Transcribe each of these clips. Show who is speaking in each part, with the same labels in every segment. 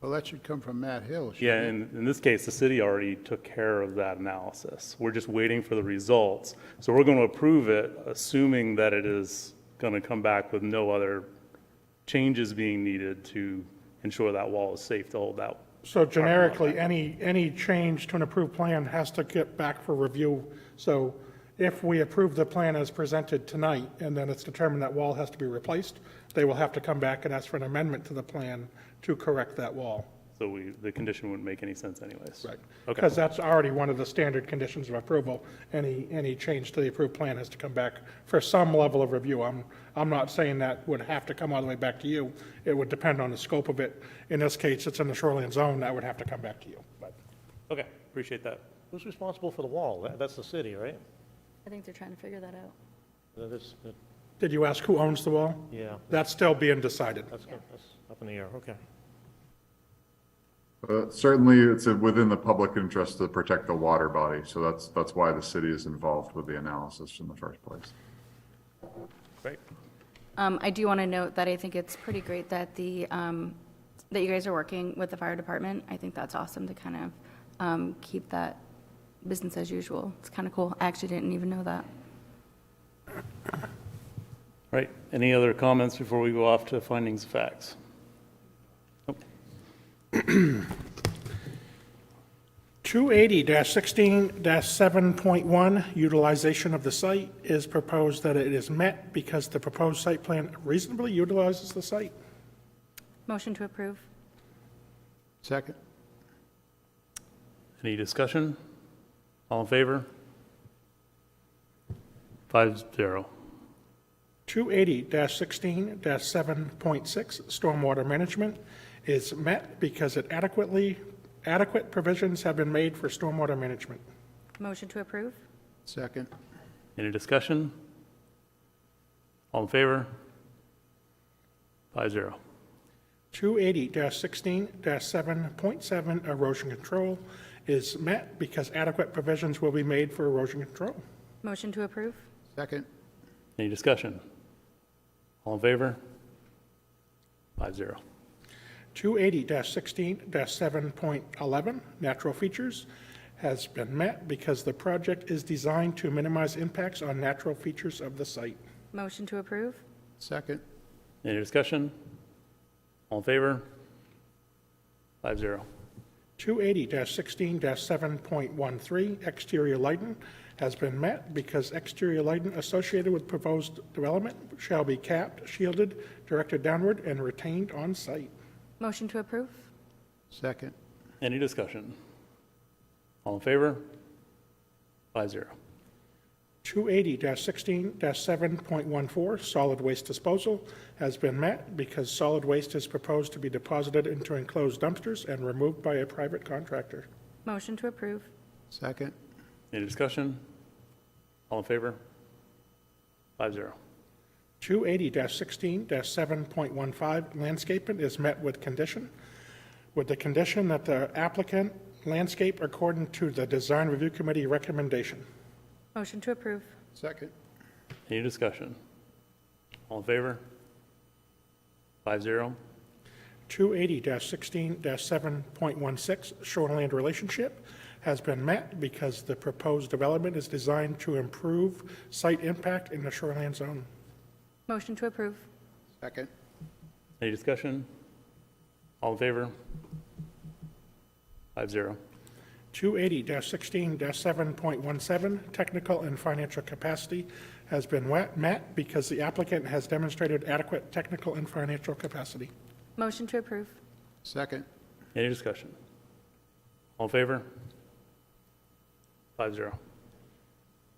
Speaker 1: Well, that should come from Matt Hill. shouldn't
Speaker 2: Yeah,
Speaker 1: it?
Speaker 2: and in this case, the city already took care of that analysis. We're just waiting for the results. So we're going to approve it, assuming that it is going to come back with no other changes being needed to ensure that wall is safe to hold out.
Speaker 3: So generically, any, any change to an approved plan has to get back for review. So if we approve the plan as presented tonight, and then it's determined that wall has to be replaced, they will have to come back and ask for an amendment to the plan to correct that wall.
Speaker 2: So we, the condition wouldn't make any sense anyways. Okay,
Speaker 3: Because that's already one of the standard conditions of approval. Any, any change to the approved plan has to come back for some level of review. I'm, I'm not saying that would have to come all the way back to you. It would depend on the scope of it. In this case, it's in the shoreline zone, that would have to come back to you, but.
Speaker 2: okay, appreciate that.
Speaker 4: Who's responsible for the wall? That- That's the city, right?
Speaker 5: I think they're trying to figure that out.
Speaker 4: That is, that-
Speaker 3: Did you ask who owns the wall?
Speaker 4: yeah,
Speaker 3: That's still being decided.
Speaker 4: that's, good. that's up in the air, okay.
Speaker 6: Uh, Certainly, it's uh, within the public interest to protect the water body, so that's, that's why the city is involved with the analysis in the first place.
Speaker 2: Great.
Speaker 5: Um, I do want to note that I think it's pretty great that the, um, that you guys are working with the fire department. I think that's awesome to kind of, um, keep that business as usual. It's kind of cool. I actually didn't even know that.
Speaker 2: All right, any other comments before we go off to findings of facts? Nope.
Speaker 3: 280-16-7.1, utilization of the site is proposed that it is met because the proposed site plan reasonably utilizes the site.
Speaker 5: Motion to approve?
Speaker 1: Second?
Speaker 2: Any discussion? All in favor? Five zero.
Speaker 3: 280-16-7.6, stormwater management is met because it adequately, adequate provisions have been made for stormwater management.
Speaker 5: Motion to approve?
Speaker 1: Second?
Speaker 2: Any discussion? All in favor? Five zero.
Speaker 3: 280-16-7.7 erosion control is met because adequate provisions will be made for erosion control.
Speaker 5: Motion to approve?
Speaker 1: Second?
Speaker 2: Any discussion? All in favor? Five zero.
Speaker 3: 280-16-7.11 natural features has been met because the project is designed to minimize impacts on natural features of the site.
Speaker 5: Motion to approve?
Speaker 1: Second?
Speaker 2: Any discussion? All in favor? Five zero.
Speaker 3: 280-16-7.13 exterior lighting has been met because exterior lighting associated with proposed development shall be capped, shielded, directed downward, and retained on site.
Speaker 5: Motion to approve?
Speaker 1: Second?
Speaker 2: Any discussion? All in favor? Five zero.
Speaker 3: 280-16-7.14 solid waste disposal has been met because solid waste is proposed to be deposited into enclosed dumpsters and removed by a private contractor.
Speaker 5: Motion to approve?
Speaker 1: Second?
Speaker 2: Any discussion? All in favor? Five zero.
Speaker 3: 280-16-7.15 landscaping is met with condition, with the condition that the applicant landscape according to the Design Review Committee recommendation.
Speaker 5: Motion to approve?
Speaker 1: Second?
Speaker 2: Any discussion? All in favor? Five zero.
Speaker 3: 280-16-7.16 shoreland relationship has been met because the proposed development is designed to improve site impact in the shoreland zone.
Speaker 5: Motion to approve?
Speaker 1: Second?
Speaker 2: Any discussion? All in favor? Five zero.
Speaker 3: 280-16-7.17, technical and financial capacity has been wet- met because the applicant has demonstrated adequate technical and financial capacity.
Speaker 5: Motion to approve?
Speaker 1: Second?
Speaker 2: Any discussion? All in favor? Five zero.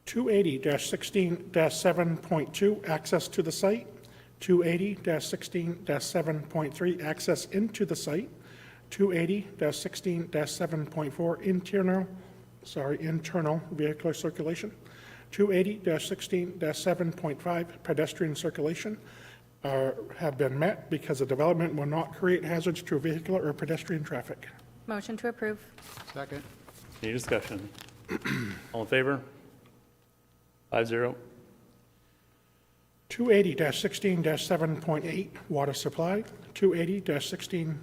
Speaker 3: 280-16-7.2, access to the site. 280-16-7.3, access into the site. 280-16-7.4, internal, sorry, internal vehicular circulation. 280-16-7.5, pedestrian circulation are- have been met because the development will not create hazards to vehicular or pedestrian traffic.
Speaker 5: Motion to approve?
Speaker 1: Second?
Speaker 2: Any discussion? All in favor? Five zero.
Speaker 3: 280-16-7.8, water supply. 280-16